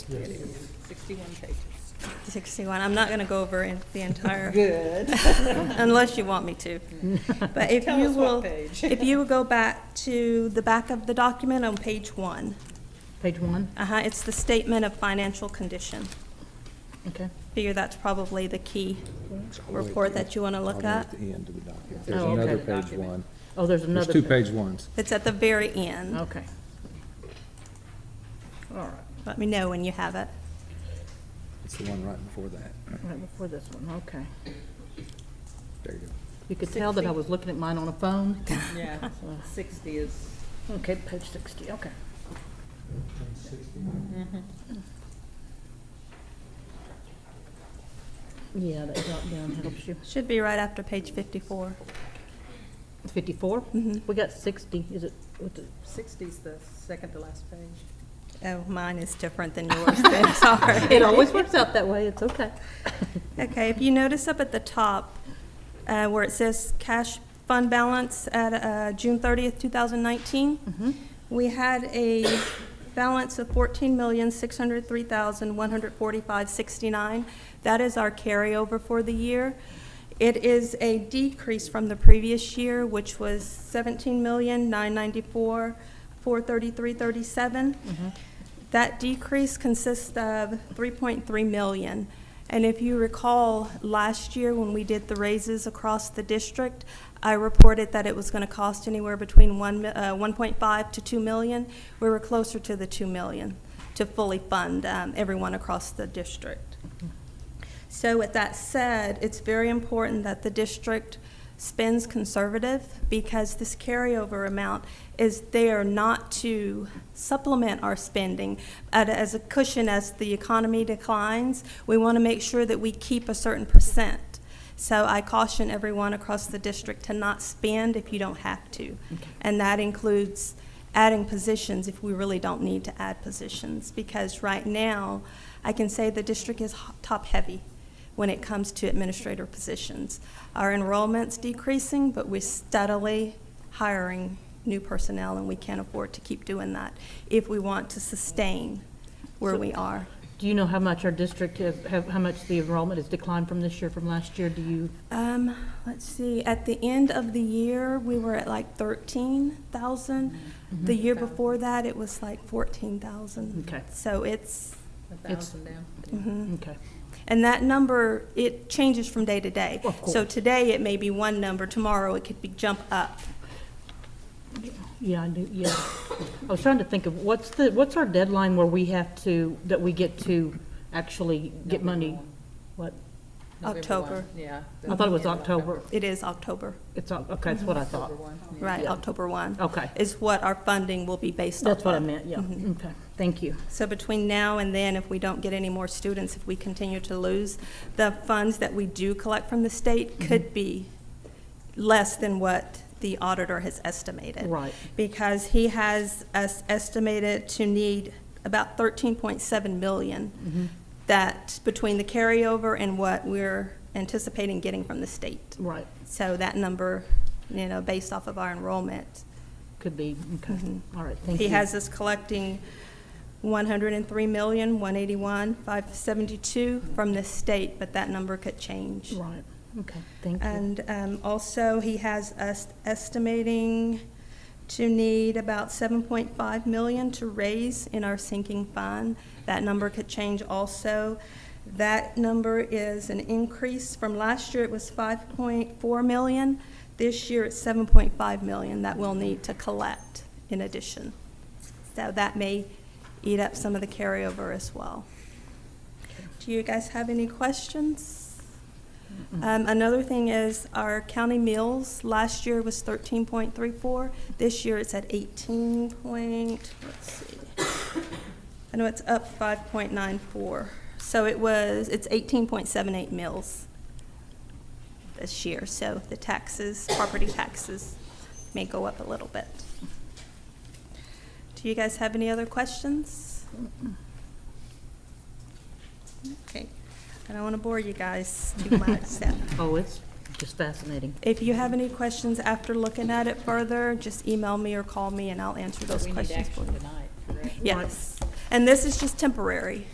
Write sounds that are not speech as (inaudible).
Sixty-one pages. 61, I'm not going to go over in- the entire, (laughs) Good. (laughs) unless you want me to. But if Tell you us what will, page. if you will go back to the back of the document on page one, Page one, uh-huh, it's the statement of financial condition. okay. Figure that's probably the key report that you want to look at. At the end of the document. There's Oh, okay. another page one. Oh, there's There's another. two pa- page ones. It's at the very end. Okay. All right. Let me know when you have it. It's the one right before that. Right before this one, okay. There you go. You could tell that I was looking at mine on a phone. Yeah, sixty is, Okay, page sixty, okay. mm-hmm, Yeah, that drop down helps you. Should be right after page 54. Fifty-four? Mhm. We got sixty, is it, what's it? sixty's the second to last page. Oh, mine is different than yours then, (laughs) sorry. It always works out that way, it's okay. Okay, if you notice up at the top, uh, where it says cash fund balance at, uh, June thirtieth, two thousand nineteen, we had a balance of fourteen million, six hundred three thousand, one hundred forty-five sixty-nine. That is our carryover for the year. It is a decrease from the previous year, which was seventeen million, nine ninety-four, four thirty-three thirty-seven. That decrease consists of 3.3 million. And if you recall, last year when we did the raises across the district, I reported that it was going to cost anywhere between one mi- uh, 1.5 to 2 million. We were closer to the 2 million to fully fund um, everyone across the district. So with that said, it's very important that the district spends conservative because this carryover amount is there not to supplement our spending at- as a cushion as the economy declines. We want to make sure that we keep a certain percent. So I caution everyone across the district to not spend if you don't have to. And that includes adding positions if we really don't need to add positions. Because right now, I can say the district is ho- top-heavy when it comes to administrator positions. Our enrollment's decreasing, but we're steadily hiring new personnel, and we can't afford to keep doing that if we want to sustain where we are. Do you know how much our district, have- have- how much the enrollment has declined from this year, from last year? Do you, Um, let's see, at the end of the year, we were at like thirteen thousand. Mm-hmm. The year before that, it was like fourteen thousand. Okay. So it's, mm-hmm. A It's- Mm-hmm. thousand down. okay. and that number, it changes from day to day. Of course. So today, it may be one number, tomorrow, it could be jump up. Yeah, I do, yeah. I was trying to think of, what's the, what's our deadline where we have to, that we get to actually get money? What? November one, October. Yeah. I thought it was October. It is October, It's, Oc- okay, that's what I thought. October one, yeah. right, Yeah. October one. Okay. Is what our funding will be based Mm-hmm. on. That's what I meant, yeah. Okay, thank you. So between now and then, if we don't get any more students, if we continue to lose, the funds that we do collect from the state could be less than what the auditor has estimated. Right. Because he has us estimated to need about thirteen point seven million. That, between the carryover and what we're anticipating getting from the state. Right, So that number, you know, based off of our enrollment, could be, okay. All right, thank you. Mm-hmm. he has us collecting one hundred and three million, one eighty-one, five seventy-two from the state, but that number could change. Right, okay, thank you. And um, also, he has us estimating to need about seven point five million to raise in our sinking fund. That number could change also. That number is an increase from last year, it was five point four million. This year, it's seven point five million that we'll need to collect in addition. So that may eat up some of the carryover as well. Do you guys have any questions? Um, another thing is our county meals, last year was thirteen point three four, this year it's at eighteen point, let's see. I know it's up five point nine four, so it was, it's eighteen point seven eight meals this year, so the taxes, property taxes may go up a little bit. Do you guys have any other questions? Okay, I don't want to bore you guys (laughs) too much, so. Oh, it's just fascinating. If you have any questions after looking at it further, just email me or call me and I'll answer So those we need questions for action you. tonight, correct? Yes, and this is just temporary.